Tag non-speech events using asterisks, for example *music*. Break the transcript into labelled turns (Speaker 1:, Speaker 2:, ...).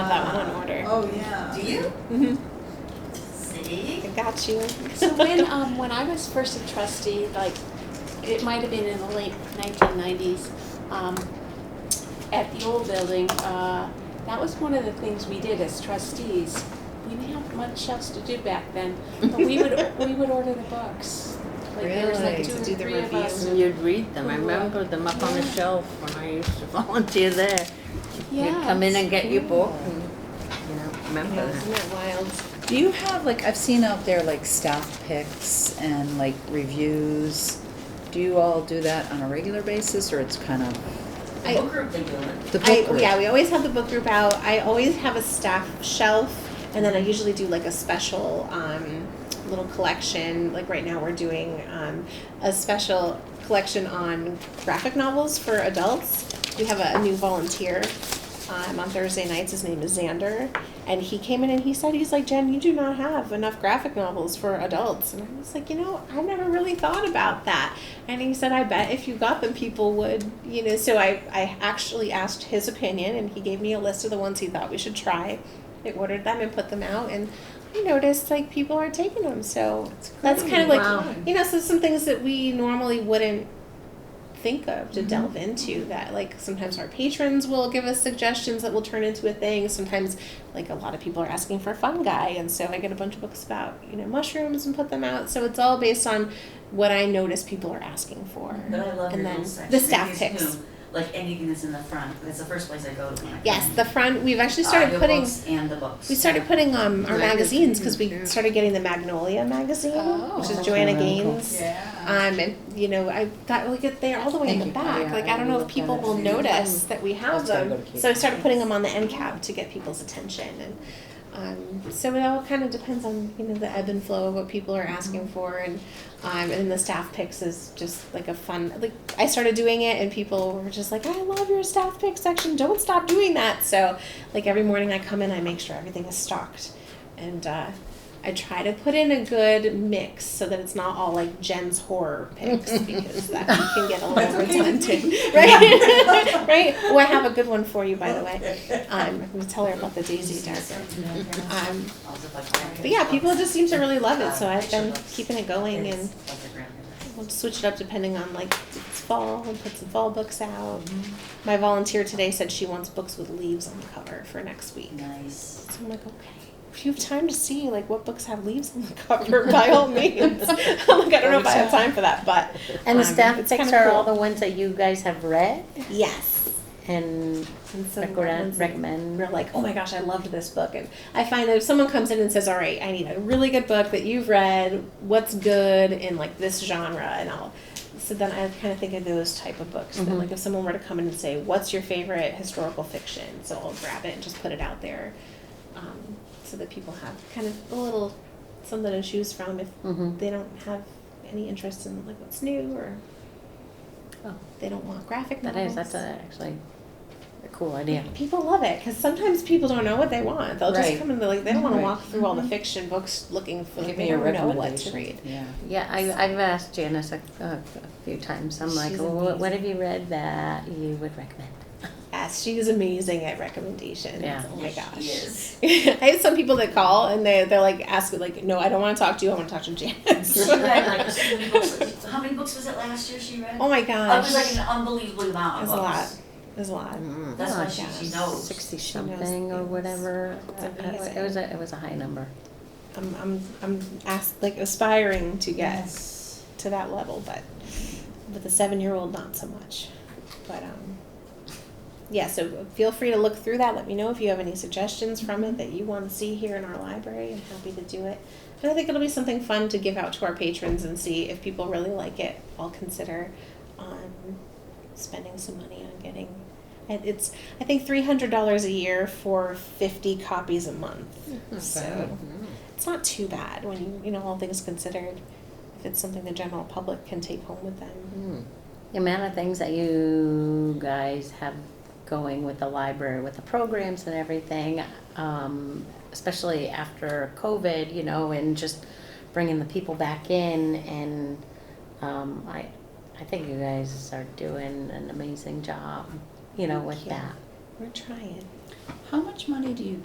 Speaker 1: Oh, yeah.
Speaker 2: Do you?
Speaker 3: Mhm.
Speaker 2: See?
Speaker 3: I got you.
Speaker 4: So when, um, when I was first a trustee, like, it might have been in the late nineteen nineties, um, at the old building, uh, that was one of the things we did as trustees. We didn't have much else to do back then, but we
Speaker 3: *laughs*
Speaker 4: would, we would order the books. Like, there was like
Speaker 3: Really?
Speaker 4: two
Speaker 3: To
Speaker 4: or
Speaker 3: do the
Speaker 4: three of us.
Speaker 3: review?
Speaker 5: And You'd read them, I remember them up on the shelf when I used to *laughs* volunteer there. You'd come in and get your book and, you know, remember
Speaker 3: Yeah,
Speaker 5: that.
Speaker 3: isn't that wild?
Speaker 1: Do you have, like, I've seen out there, like, staff picks and, like, reviews. Do you all do that on a regular basis, or it's kind of
Speaker 2: The
Speaker 3: I-
Speaker 2: book group they do it.
Speaker 1: the book
Speaker 3: I,
Speaker 1: group?
Speaker 3: yeah, we always have the book group out. I always have a staff shelf, and then I usually do like a special um, little collection. Like right now, we're doing um, a special collection on graphic novels for adults. We have a, new volunteer um, on Thursday nights. His name is Xander, and he came in and he said, "He's like Jen, you do not have enough graphic novels for adults." And I was like, "You know, I never really thought about that." And he said, I bet if you got them, people would, you know. So I, I actually asked his opinion, and he gave me a list of the ones he thought we should try. I ordered them and put them out, and I noticed like people are taking them. So that's kind of like,
Speaker 2: Wow.
Speaker 3: you know, so some things that we normally wouldn't think of to delve into that like sometimes our patrons will give us suggestions that will turn into a thing sometimes like a lot of people are asking for fungi and so i get a bunch of books about you know mushrooms and put them out so it's all based on what i notice people are asking for
Speaker 2: But I love
Speaker 3: And
Speaker 2: your
Speaker 3: then
Speaker 2: little
Speaker 3: the
Speaker 2: section.
Speaker 3: staff
Speaker 2: It
Speaker 3: picks.
Speaker 2: gives you, Like anything that's in the front, that's the first place I go to when I come
Speaker 3: yes
Speaker 2: in.
Speaker 3: the front we've actually
Speaker 2: Uh,
Speaker 3: started
Speaker 2: your
Speaker 3: putting
Speaker 2: books and the books.
Speaker 3: we started putting um, our
Speaker 5: Magazine,
Speaker 3: magazines because we
Speaker 5: yeah.
Speaker 3: started getting the magnolia magazine which is
Speaker 1: Oh.
Speaker 3: joanna
Speaker 1: Really cool.
Speaker 3: gaines
Speaker 1: Yeah.
Speaker 3: Um, and you know, I thought we'll get there all the way
Speaker 1: Thank
Speaker 3: in
Speaker 1: you.
Speaker 3: the back.
Speaker 1: Yeah,
Speaker 3: like
Speaker 1: I
Speaker 3: I don't know if
Speaker 1: looked at
Speaker 3: people
Speaker 1: it
Speaker 3: will
Speaker 1: too.
Speaker 3: notice that we have
Speaker 1: That's gotta
Speaker 3: them.
Speaker 1: go to
Speaker 3: So I started putting them on the end cap to get people's attention, and um, so it all kind of depends on you know the ebb and flow of what people are asking
Speaker 1: Mm-hmm.
Speaker 3: for, and um, and the staff picks is just like a fun. Like I started doing it, and people were just like, "I love your staff pick section. Don't stop doing that." So like every morning I come in, I make sure everything is stocked, and. Uh, I try to put in a good mix so that it's not all like Jen's horror picks because that can get a little redundant, right? *laughs* right? Oh, I have a good one for you, by the way. Um, I'm gonna tell her about the Daisy Darker. *laughs* Um,
Speaker 2: Also, like,
Speaker 3: but yeah, people just seem to really love it, so
Speaker 2: Uh,
Speaker 3: I've been
Speaker 2: picture books.
Speaker 3: keeping it going,
Speaker 2: It's
Speaker 3: and
Speaker 2: like a grandmother.
Speaker 3: we'll switch it up depending on like it's fall and put some fall books out. My volunteer today said she wants books with leaves on the cover for next week.
Speaker 2: Nice.
Speaker 3: So I'm like, okay. If you have time to see like what books have leaves on the cover, *laughs* by all means. I'm like, I don't know if I have time for that, but
Speaker 5: And the
Speaker 3: um,
Speaker 5: staff
Speaker 3: it's
Speaker 5: picks
Speaker 3: kinda
Speaker 5: are
Speaker 3: cool.
Speaker 5: all the ones that you guys have read
Speaker 3: yes.
Speaker 5: and
Speaker 3: And so
Speaker 5: recommend, recommend.
Speaker 3: we're like, oh my gosh, I loved this book, and I find that if someone comes in and says, all right, I need a really good book that you've read, what's good in like this genre, and I'll. So then I kind of think of those type of books. That,
Speaker 5: Mhm.
Speaker 3: like if someone were to come in and say, what's your favorite historical fiction, so I'll grab it and just put it out there, um, so that people have kind of a little something to choose from if
Speaker 5: Mhm.
Speaker 3: they don't have any interest in like what's new or
Speaker 5: Oh.
Speaker 3: they don't want graphic
Speaker 5: That
Speaker 3: novels.
Speaker 5: is, that's a- actually a cool idea.
Speaker 3: People love it because sometimes people don't know what they want. They'll
Speaker 5: Right.
Speaker 3: just come in they're like they don't want to
Speaker 1: Right. Mm-hmm.
Speaker 3: walk through all the fiction books looking for.
Speaker 1: Give
Speaker 3: they
Speaker 1: me a
Speaker 3: don't know what to
Speaker 1: recommendation. Yeah.
Speaker 5: Yeah, I, I've asked Janice a, a a few times, I'm like,
Speaker 3: She's
Speaker 5: "Oh, what what
Speaker 3: amazing.
Speaker 5: have you read that you would recommend?
Speaker 3: Yes, Ah, she is amazing at recommendations.
Speaker 5: Yeah.
Speaker 3: Oh my
Speaker 2: Yes,
Speaker 3: gosh.
Speaker 2: she is.
Speaker 3: *laughs* I have some people that call and they they're like ask like no I don't want to talk to you I want to talk to
Speaker 2: She *laughs*
Speaker 3: Janice.
Speaker 2: read like so many books. How many books was it last year she read?
Speaker 3: oh my
Speaker 2: It
Speaker 3: gosh.
Speaker 2: was like an unbelievable amount of
Speaker 3: It's a lot.
Speaker 2: books.
Speaker 3: There's a lot.
Speaker 2: That's why
Speaker 3: Oh,
Speaker 2: she, she
Speaker 3: yes.
Speaker 2: knows.
Speaker 5: Sixty
Speaker 3: She knows
Speaker 5: something or
Speaker 3: things.
Speaker 5: whatever.
Speaker 3: It's
Speaker 5: Uh,
Speaker 3: amazing.
Speaker 5: It was a, it was a high number.
Speaker 3: I'm I'm I'm asked like aspiring to get to that level, but with a seven year old not so much. But um yeah, so feel free to look through that. Let me know if you have any suggestions from it that you want to see here in our library. I'm happy to do it. And I think it'll be something fun to give out to our patrons and see if people really like it. I'll consider um, spending some money on getting. and It's I think three hundred dollars a year for fifty copies a month. so it's not too bad when you you know all things considered if it's something the general public can take home with them
Speaker 5: Hmm. The amount of things that you guys have going with the library, with the programs and everything, um, especially after COVID, you know, and just bringing the people back in and, um, I, I think you guys are doing an amazing job, you know, with
Speaker 3: Thank you.
Speaker 5: that.
Speaker 3: we're trying
Speaker 1: How much money do you